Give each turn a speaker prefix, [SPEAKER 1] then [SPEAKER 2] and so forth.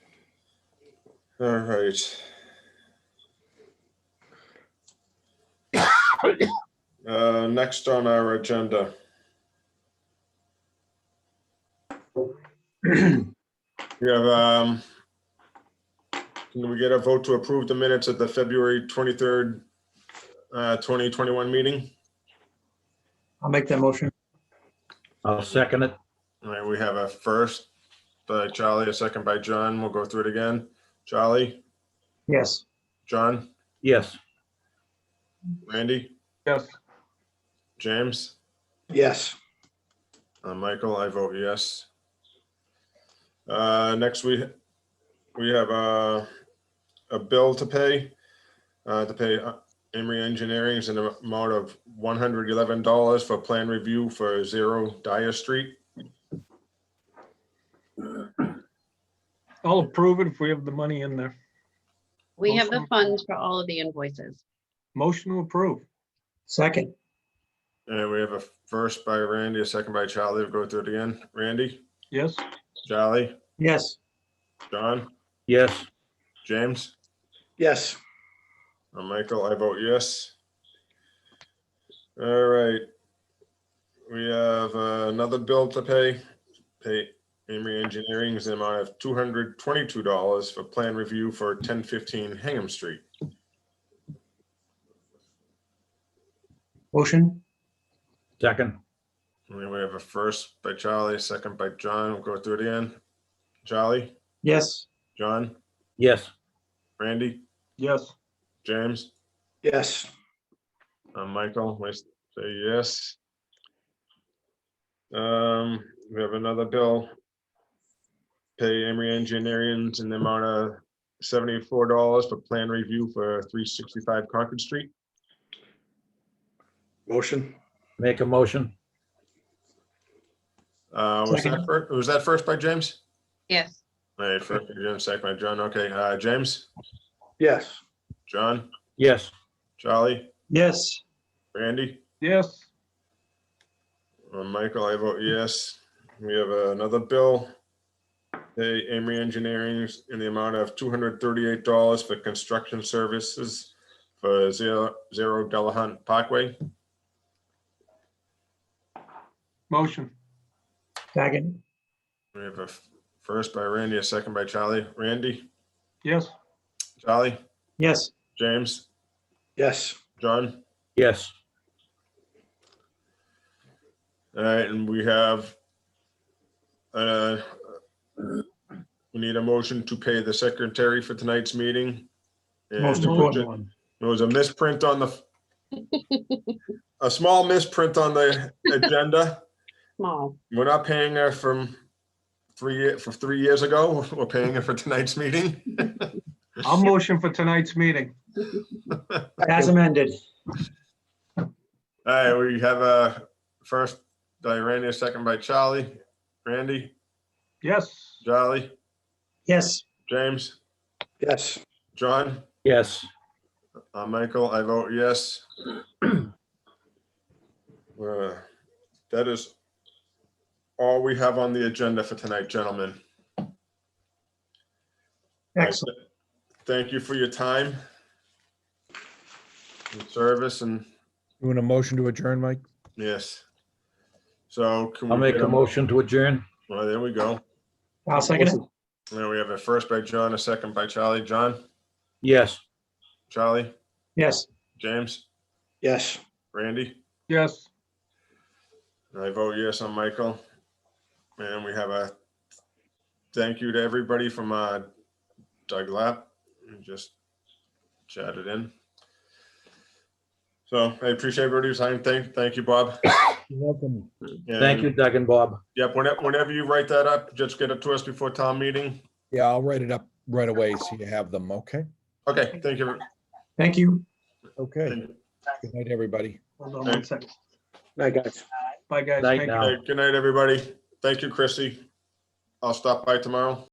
[SPEAKER 1] All right. Uh, Next on our agenda. We have, um, can we get a vote to approve the minutes at the February 23rd, uh, 2021 meeting?
[SPEAKER 2] I'll make that motion.
[SPEAKER 3] I'll second it.
[SPEAKER 1] All right, we have a first by Charlie, a second by John. We'll go through it again. Charlie,
[SPEAKER 2] Yes.
[SPEAKER 1] John,
[SPEAKER 3] Yes.
[SPEAKER 1] Randy,
[SPEAKER 2] Yes.
[SPEAKER 1] James,
[SPEAKER 4] Yes,
[SPEAKER 1] uh, Michael, I vote yes. Uh, next, we, we have a, a bill to pay, uh, to pay uh, Emery Engineering's an amount of one hundred eleven dollars for plan review for zero Dyer Street.
[SPEAKER 5] I'll approve it if we have the money in there.
[SPEAKER 6] We have the
[SPEAKER 5] Motion.
[SPEAKER 6] funds for all of the invoices.
[SPEAKER 5] Motion to approve.
[SPEAKER 2] Second.
[SPEAKER 1] And we have a first by Randy, a second by Charlie. We'll go through it again. Randy,
[SPEAKER 5] Yes,
[SPEAKER 1] Charlie,
[SPEAKER 2] Yes.
[SPEAKER 1] John?
[SPEAKER 3] Yes.
[SPEAKER 1] James?
[SPEAKER 4] yes,
[SPEAKER 1] Uh, Michael, I vote yes. All right. We have uh, another bill to pay. Pay Amory Engineering's the amount of two hundred twenty-two dollars for plan review for ten fifteen Hingham Street.
[SPEAKER 2] Motion.
[SPEAKER 3] Second.
[SPEAKER 1] And then we have a first by Charlie, second by John. We'll go through it again. Charlie,
[SPEAKER 2] Yes.
[SPEAKER 1] John,
[SPEAKER 3] Yes.
[SPEAKER 1] Randy,
[SPEAKER 5] yes,
[SPEAKER 1] James?
[SPEAKER 4] yes,
[SPEAKER 1] Uh, Michael, I s- say yes. Um, we have another bill. Pay Emery Engineering in the amount of seventy-four dollars for plan review for three sixty-five Concord Street.
[SPEAKER 4] motion,
[SPEAKER 3] Make a motion.
[SPEAKER 1] Uh, was that
[SPEAKER 2] Second.
[SPEAKER 1] first, was that first by James?
[SPEAKER 6] Yes,
[SPEAKER 1] All right, first by James, second by John. Okay, uh, James,
[SPEAKER 4] yes,
[SPEAKER 1] John,
[SPEAKER 3] Yes.
[SPEAKER 1] Charlie,
[SPEAKER 2] Yes.
[SPEAKER 1] Randy,
[SPEAKER 5] yes,
[SPEAKER 1] uh, Michael, I vote yes. We have uh, another bill. Pay Amory Engineering in the amount of two hundred thirty-eight dollars for construction services for zero, zero Delahunt Parkway.
[SPEAKER 5] motion.
[SPEAKER 2] Second.
[SPEAKER 1] We have a f- first by Randy, a second by Charlie. Randy,
[SPEAKER 5] Yes,
[SPEAKER 1] Charlie,
[SPEAKER 2] Yes.
[SPEAKER 1] James,
[SPEAKER 4] yes,
[SPEAKER 1] John?
[SPEAKER 3] Yes.
[SPEAKER 1] All right, and we have, uh, we need a motion to pay the secretary for tonight's meeting. And
[SPEAKER 2] Most important one.
[SPEAKER 1] There was a misprint on the, a small misprint on the agenda.
[SPEAKER 6] small.
[SPEAKER 1] We're not paying her from three, for three years ago. We're paying her for tonight's meeting.
[SPEAKER 5] I'll motion for tonight's meeting.
[SPEAKER 2] As amended.
[SPEAKER 1] All right, we have a first by Randy, a second by Charlie. Randy,
[SPEAKER 5] Yes,
[SPEAKER 1] Charlie,
[SPEAKER 2] Yes.
[SPEAKER 1] James,
[SPEAKER 4] yes,
[SPEAKER 1] John,
[SPEAKER 3] Yes.
[SPEAKER 1] uh, Michael, I vote yes. Uh, That is all we have on the agenda for tonight, gentlemen.
[SPEAKER 2] Excellent.
[SPEAKER 1] Thank you for your time. and Service and,
[SPEAKER 7] You want a motion to adjourn, Mike?
[SPEAKER 1] yes. So. can we
[SPEAKER 3] I'll make
[SPEAKER 1] get
[SPEAKER 3] a motion to adjourn.
[SPEAKER 1] Well, there we go.
[SPEAKER 2] I'll second it.
[SPEAKER 1] There we have a first by John, a second by Charlie. John,
[SPEAKER 3] Yes.
[SPEAKER 1] Charlie,
[SPEAKER 2] Yes.
[SPEAKER 1] James,
[SPEAKER 4] yes.
[SPEAKER 1] Randy.
[SPEAKER 5] yes.
[SPEAKER 1] And I vote yes on Michael. And we have a thank you to everybody from uh, Doug Lap, who just chatted in. So I appreciate everybody's time. Thank, thank you, Bob.
[SPEAKER 7] You're welcome.
[SPEAKER 3] Thank you, Doug and Bob.
[SPEAKER 1] Yep, whenever, whenever you write that up, just get it to us before town meeting.
[SPEAKER 7] Yeah, I'll write it up right away so you have them, okay?
[SPEAKER 1] Okay, thank you.
[SPEAKER 2] Thank you.
[SPEAKER 7] Okay. Good night, everybody.
[SPEAKER 5] Hold on one second.
[SPEAKER 4] Night, guys.
[SPEAKER 5] Bye, guys.
[SPEAKER 3] Night
[SPEAKER 5] Thank you.
[SPEAKER 3] now.
[SPEAKER 1] Hey, Good night, everybody. Thank you, Chrissy. I'll stop by tomorrow.